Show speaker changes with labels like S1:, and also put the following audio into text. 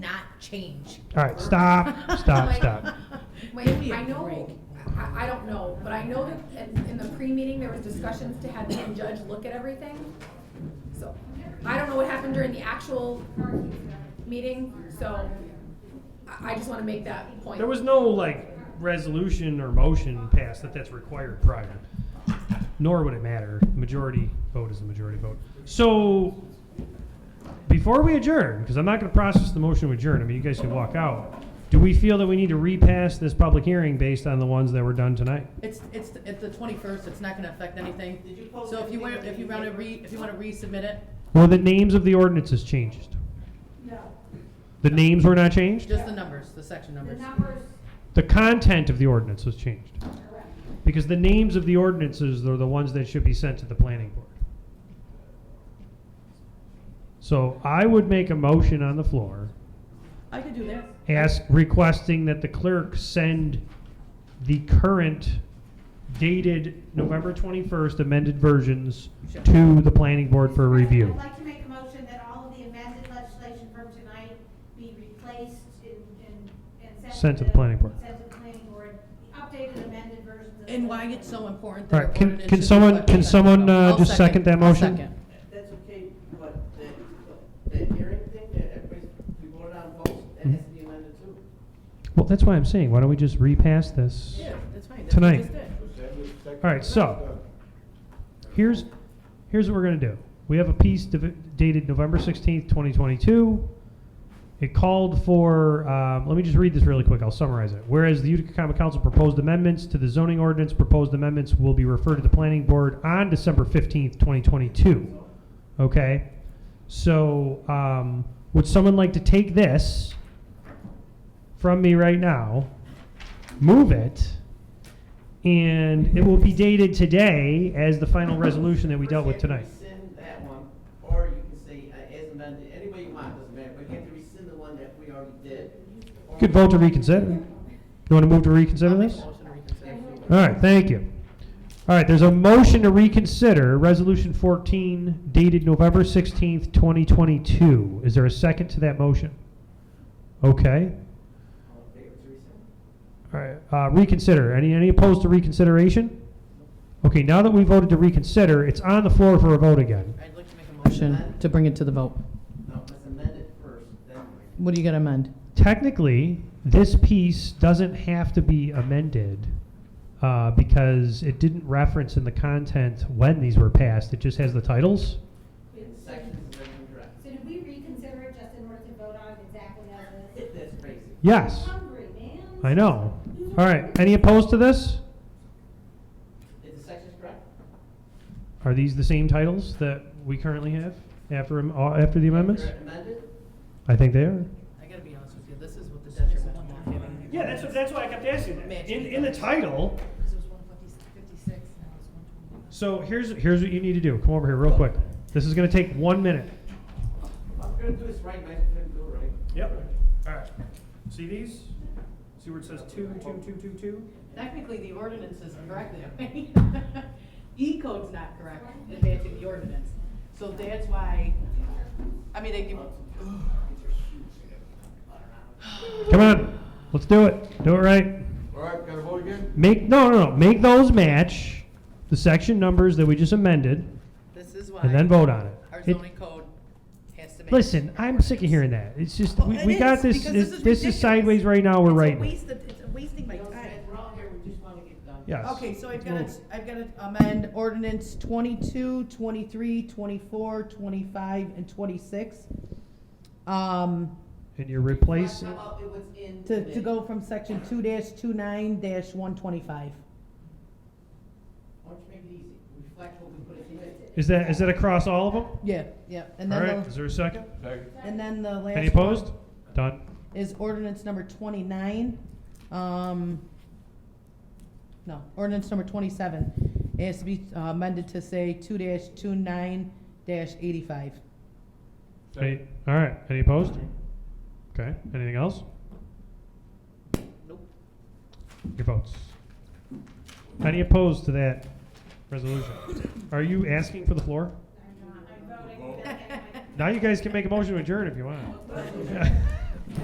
S1: change.
S2: All right, stop, stop,
S1: Like,
S2: stop.
S3: Wait,
S1: Give me a
S3: I know, I, I don't know, but I know that in, in the pre-meeting, there was discussions to have the judge look at everything. So, I don't know what happened during the actual meeting, so I, I just wanna make that point.
S2: There was no like resolution or motion passed that that's required prior. Nor would it matter. Majority vote is the majority vote. So before we adjourn, because I'm not going to process the motion to adjourn. I mean, you guys can walk out. Do we feel that we need to repass this public hearing based on the ones that were done tonight?
S4: It's, it's, at the twenty-first, it's not gonna affect anything. So if you want, if you wanna re, if you wanna resubmit it,
S2: Were the names of the ordinances changed? No. The names were not changed?
S4: just the numbers, the section numbers.
S2: The content of the ordinance was changed? Because the names of the ordinances are the ones that should be sent to the planning board. So I would make a motion on the floor,
S4: I could do that.
S2: ask, requesting that the clerk send the current dated November 21st amended versions
S4: Sure.
S2: to the planning board for review.
S5: I'd like to make a motion that all of the amended legislation from tonight be replaced and, and- and
S2: Sent to the planning board.
S5: Sent to the planning board, the updated amended versions of. the
S4: And why
S5: planning
S4: it's so
S5: board.
S4: important
S2: All
S4: that.
S2: right,
S4: our
S2: can,
S4: ordinance
S2: can
S4: should
S2: someone,
S4: reflect
S2: can
S4: that.
S2: someone uh,
S4: I'll
S2: just second that
S4: I'll
S2: motion?
S4: second.
S6: That's okay, but the, the hearing thing that everybody's, we voted on both, that has to be amended too.
S2: Well, that's why I'm saying, why don't we just repass this?
S4: Yeah, that's right. that's what
S2: Tonight.
S4: we just did.
S2: All right, so here's here's what we're gonna do. We have a piece div- dated November sixteenth, twenty twenty-two. It called for. Um, let me just read this really quick. I'll summarize it. Whereas the Utica Common Council proposed amendments to the zoning ordinance, proposed amendments will be referred to the Planning Board on December fifteenth, twenty twenty-two. Okay. So, um, would someone like to take this from me right now, move it, and it will be dated today as the final resolution that we dealt with tonight.
S6: You can rescind that one, or you can say, uh, as amended, any way you want, doesn't matter, but you have to rescind the one that we already did.
S2: You could vote to reconsider. You want to move to reconsider
S4: I'll make a
S2: this? All
S4: motion to reconsider.
S2: right, thank you. All right, there's a motion to reconsider Resolution 14 dated November 16th, 2022. Is there a second to that motion? Okay.
S6: All in favor to rescind?
S2: All right, uh, reconsider. Any, any opposed to reconsideration? Okay, now that we voted to reconsider, it's on the floor for a vote again.
S4: I'd like to make a motion to bring it to the vote.
S6: No, let's amend it first, then.
S4: What do you gotta amend?
S2: technically, this piece doesn't have to be amended uh, because it didn't reference in the content when these were passed. It just has the titles.
S6: The sections is incorrect.
S5: So did we reconsider it just in order to vote on it exactly as it is?
S6: That's crazy.
S2: Yes,
S5: Hungry, man.
S2: I know. All right, any opposed to this?
S6: Is the sections correct?
S2: Are these the same titles that we currently have after am- uh, after the amendments?
S6: Correct, Amended?
S2: I think they are.
S4: I gotta be honest with you, this is what the detriment.
S2: Yeah, that's that's why I kept asking
S4: that. In- in the
S2: title.
S1: Because it was one fifty-six, now it's one twenty-one.
S2: So here's here's what you need to do. Come over here real quick. This is going to take one minute.
S6: I'm gonna do this right, Mike, I'm gonna do it right.
S2: All right. See these? See where it says two, two, two, two, two?
S4: Technically, the ordinance is correct that way. E code's not correct, advancing the ordinance. So that's why, I mean, they give,
S2: Come on, let's do it. Do it right.
S7: All right, gotta vote again?
S2: Make no, no, no. Make those match the section numbers that we just amended,
S4: this is why.
S2: and then vote on it.
S4: Our
S2: It-
S4: zoning code has to make.
S2: listen, I'm sick of hearing that. It's just we,
S4: Well,
S2: we
S4: it
S2: got
S4: is,
S2: this.
S4: because
S2: This,
S4: this is
S2: this is
S4: ridiculous.
S2: sideways right now. We're
S4: It's a
S2: writing.
S4: waste of, it's a wasting my
S6: Don't say
S4: time.
S6: it, We're all here, we just wanna get done.
S2: Yes.
S4: Okay, so I've got to, I've got to amend ordinance 22, 23, 24, 25, and twenty-six. Um,
S2: And you replace.
S6: How about it was in
S4: to,
S6: the-
S4: to go from section two dash two nine dash one twenty-five.
S6: Why don't you make it easy? Reflect what we put in here.
S2: Is that is that across all of them?
S4: Yeah, yeah, and
S2: All
S4: then,
S2: right. Is
S4: the-
S2: there a second?
S7: Second.
S4: and then the last.
S2: Any opposed? Done.
S4: one Is ordinance number twenty-nine, um, no, ordinance number twenty-seven. It has to be uh, amended to say two dash two nine dash eighty-five.
S2: Any, all right. Any opposed? Okay. Anything else?
S4: Nope.
S2: Your votes. Any opposed to that resolution? Are you asking for the floor?
S5: I'm not, I'm voting.
S2: Now you guys can make a motion to adjourn if you want.